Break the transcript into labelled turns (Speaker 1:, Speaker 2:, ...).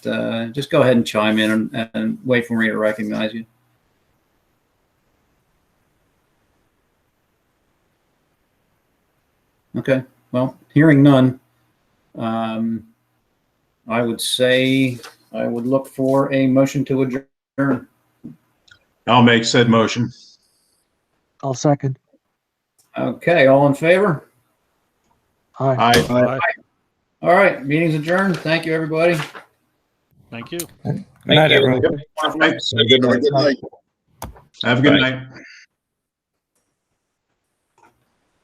Speaker 1: uh, just go ahead and chime in and, and wait for me to recognize you. Okay, well, hearing none, um, I would say I would look for a motion to adjourn.
Speaker 2: I'll make said motion.
Speaker 3: I'll second.
Speaker 1: Okay, all in favor?
Speaker 3: Aye.
Speaker 2: Aye.
Speaker 1: All right, meeting's adjourned. Thank you, everybody.
Speaker 4: Thank you.
Speaker 5: Good night, everyone.
Speaker 2: Have a
Speaker 5: Have a good night.
Speaker 2: good night.